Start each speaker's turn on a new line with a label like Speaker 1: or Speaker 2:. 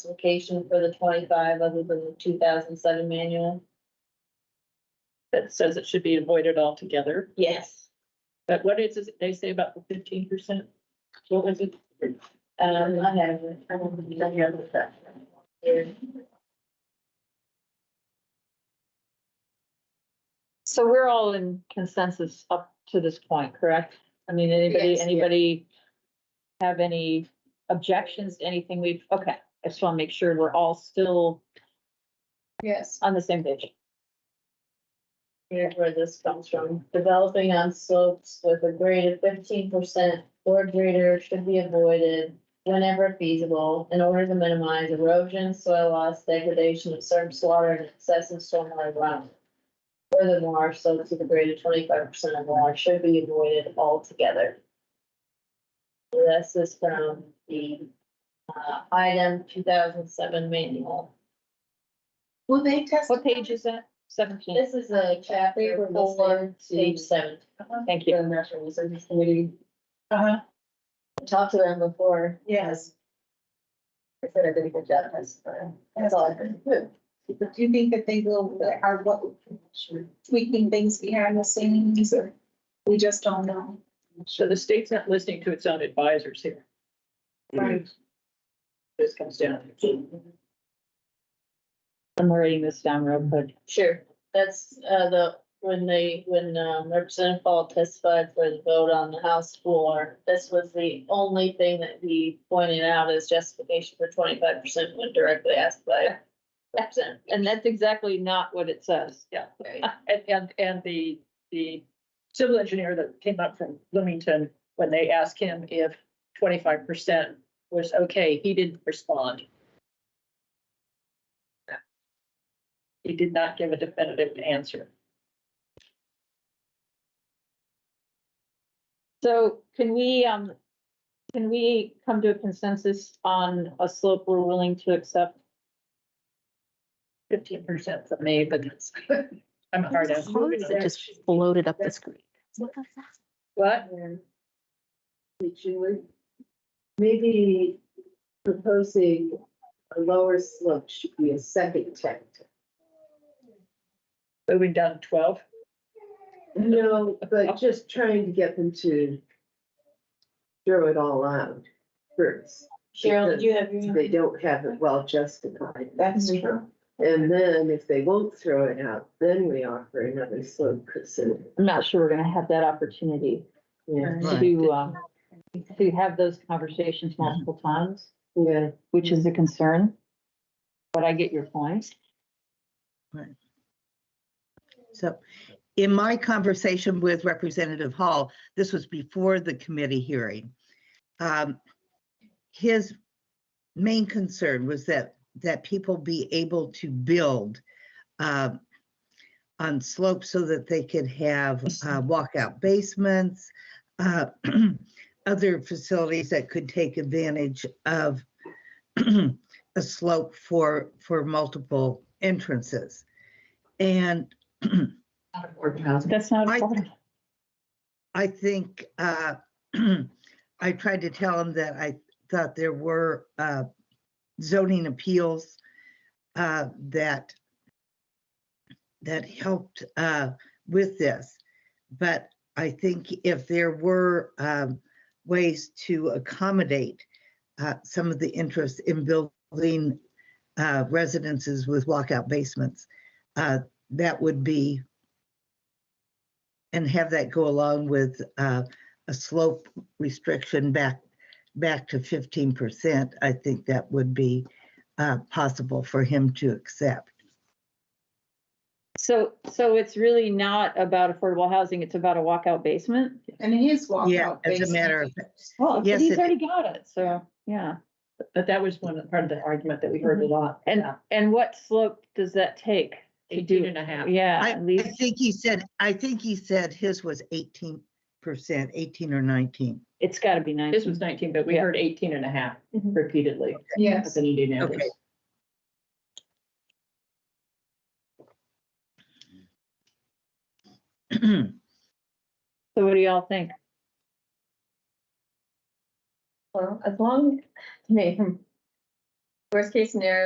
Speaker 1: justification for the twenty-five other than the two thousand seven manual?
Speaker 2: that says it should be avoided altogether.
Speaker 1: Yes.
Speaker 2: But what is, it they say about the fifteen percent? What was it?
Speaker 1: Um, I have. it. I don't think I have it up here.
Speaker 3: So we're all in consensus up to this point, correct? I mean, anybody,
Speaker 1: Yes.
Speaker 3: anybody have any objections to anything we've, okay, I just want to make sure we're all still
Speaker 4: Yes.
Speaker 3: on the same page.
Speaker 1: Here's where this comes from. Developing on slopes with a grade of fifteen percent or greater should be avoided whenever feasible in order to minimize erosion, soil loss, degradation of surface water, and excessive stormwater runoff. Furthermore, slopes with a grade of twenty-five percent or more should be avoided altogether. This is from the, uh, item two thousand seven manual.
Speaker 4: Will they test?
Speaker 3: What page is that? Seventeen,
Speaker 1: This is a chapter four, page seven.
Speaker 3: thank you.
Speaker 1: National Research Committee.
Speaker 2: Uh-huh.
Speaker 1: talked to them before.
Speaker 4: Yes.
Speaker 1: I said I did a good job, that's, that's all I could do.
Speaker 4: Do you think that they will, are what, tweaking things behind the scenes or we just don't know?
Speaker 2: So the state's not listening to its own advisors here.
Speaker 4: Right.
Speaker 2: This comes down. to.
Speaker 3: I'm writing this down real quick.
Speaker 1: Sure, that's, uh, the, when they, when, um, Representative Paul testified for the vote on the House floor, this was the only thing that he pointed out as justification for twenty-five percent when directly asked by Representative.
Speaker 3: And that's exactly not what it says.
Speaker 1: Perry.
Speaker 2: And, and, and the, the civil engineer that came up from Bloomington, when they asked him if twenty-five percent was okay, he didn't respond. He did not give a definitive answer.
Speaker 3: So can we, um, can we come to a consensus on a slope we're willing to accept?
Speaker 2: Fifteen percent for me, but that's, I'm hard
Speaker 5: Those
Speaker 2: at.
Speaker 5: clothes that just floated up the screen.
Speaker 2: What?
Speaker 6: Maybe proposing a lower slope should be a second chapter.
Speaker 2: Moving down to twelve?
Speaker 6: No, but just trying to get them to throw it all out first.
Speaker 1: Cheryl, did you have your?
Speaker 6: They don't have it well justified.
Speaker 4: That's
Speaker 6: true. And then if they won't throw it out, then we offer another slope consider.
Speaker 3: I'm not sure we're gonna have that opportunity.
Speaker 6: Yeah,
Speaker 3: to, um, to have those conversations
Speaker 7: Mm-hmm.
Speaker 3: multiple times,
Speaker 6: yeah.
Speaker 3: which is a concern. But I get your point.
Speaker 7: So in my conversation with Representative Hall, this was before the committee hearing. um, His main concern was that, that people be able to build um, on slopes so that they could have uh, walkout basements, uh, other facilities that could take advantage of a slope for, for multiple entrances. And
Speaker 3: That's not.
Speaker 7: I-
Speaker 3: affordable.
Speaker 7: I think, uh, I tried to tell him that I thought there were, uh, zoning appeals, uh, that, that helped, uh, with this. But I think if there were, um, ways to accommodate, uh, some of the interest in building, uh, residences with walkout basements, uh, that would be, and have that go along with uh, a slope restriction back, back to fifteen percent, I think that would be uh, possible for him to accept.
Speaker 3: So, so it's really not about affordable housing, it's about a walkout basement?
Speaker 4: And it is
Speaker 7: Yeah,
Speaker 4: walkout.
Speaker 7: as a matter of,
Speaker 3: Well,
Speaker 7: Yes,
Speaker 3: he's
Speaker 7: it-
Speaker 3: already got it, so, yeah.
Speaker 2: But that was one part of the argument that we heard
Speaker 1: Mm-hmm.
Speaker 2: a lot.
Speaker 3: And, and what slope does that take? to do-
Speaker 2: Eighteen and a half.
Speaker 3: Yeah,
Speaker 7: I,
Speaker 3: at
Speaker 7: I
Speaker 3: least
Speaker 7: think he said, I think he said his was eighteen percent, eighteen or nineteen.
Speaker 3: it's gotta be nice.
Speaker 2: This was nineteen, but we
Speaker 3: Yeah.
Speaker 2: heard eighteen and a half
Speaker 1: Mhm.
Speaker 2: repeatedly.
Speaker 4: Yes.
Speaker 2: as an unanimous.
Speaker 7: Okay.
Speaker 3: So what do y'all think?
Speaker 1: Well, as long, I mean,
Speaker 8: Worst case scenario,